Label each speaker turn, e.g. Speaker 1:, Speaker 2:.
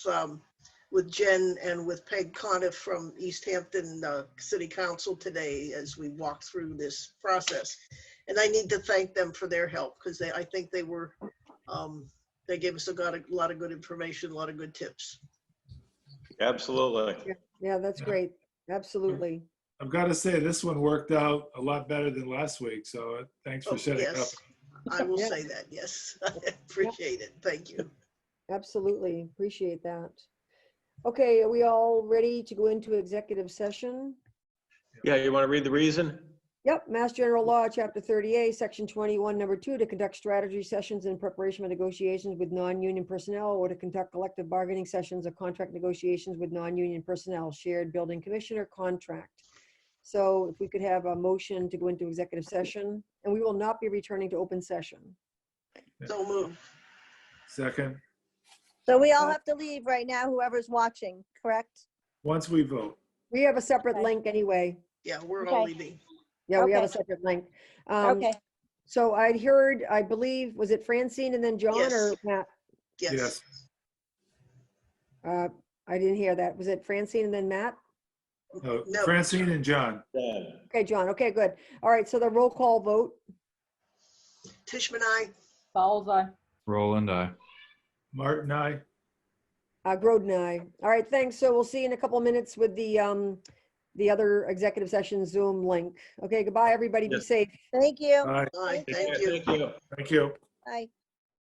Speaker 1: um, with Jen and with Peg Coniff from East Hampton uh, City Council today as we walk through this process. And I need to thank them for their help because they, I think they were, um, they gave us a lot, of- lot of good information, a lot of good tips.
Speaker 2: Absolutely.
Speaker 3: Yeah, that's
Speaker 4: Yeah.
Speaker 3: great. Absolutely.
Speaker 4: I've got to say, this one worked out a lot better than last week, so uh, thanks
Speaker 1: Oh,
Speaker 4: for setting up.
Speaker 1: yes. I will
Speaker 3: Yeah.
Speaker 1: say that, yes. I Appreciate it. Thank you.
Speaker 3: Absolutely. Appreciate that. Okay, are we all ready to go into executive session?
Speaker 2: Yeah, you want to read the reason?
Speaker 3: Yep, Mass General Law, Chapter 38, Section 21, Number 2, to conduct strategy sessions in preparation for negotiations with non-union personnel or to conduct collective bargaining sessions or contract negotiations with non-union personnel, shared building commissioner contract. So if we could have a motion to go into executive session, and we will not be returning to open session.
Speaker 1: So moved.
Speaker 4: Second,
Speaker 5: So we all
Speaker 3: Uh,
Speaker 5: have to leave right now, whoever's watching, correct?
Speaker 4: once we vote.
Speaker 3: We have a separate
Speaker 5: Okay.
Speaker 3: link anyway.
Speaker 1: Yeah, we're all
Speaker 5: Okay.
Speaker 1: leaving.
Speaker 3: Yeah, we have a
Speaker 5: Okay.
Speaker 3: separate link. Um,
Speaker 5: Okay,
Speaker 3: So I'd heard, I believe, was it Francine and then John
Speaker 1: Yes.
Speaker 3: or Matt?
Speaker 1: Yes.
Speaker 4: Yes,
Speaker 3: Uh, I didn't hear that. Was it Francine and then Matt?
Speaker 4: No,
Speaker 1: No.
Speaker 4: Uh, Francine and John,
Speaker 2: Dan?
Speaker 3: Okay, John. Okay, good. All right, so the roll call vote.
Speaker 1: Tishman, I,
Speaker 6: Fowles eye.
Speaker 7: Roland, I.
Speaker 4: Martin, I,
Speaker 3: Uh, Groden, aye. All right, thanks. So we'll see you in a couple of minutes with the, um, the other executive session Zoom link. Okay, goodbye, everybody. Be
Speaker 2: Yes.
Speaker 3: safe.
Speaker 5: thank you.
Speaker 4: aye,
Speaker 1: aye,
Speaker 5: Thank
Speaker 1: thank you.
Speaker 2: Thank you.
Speaker 4: thank you.
Speaker 5: Bye.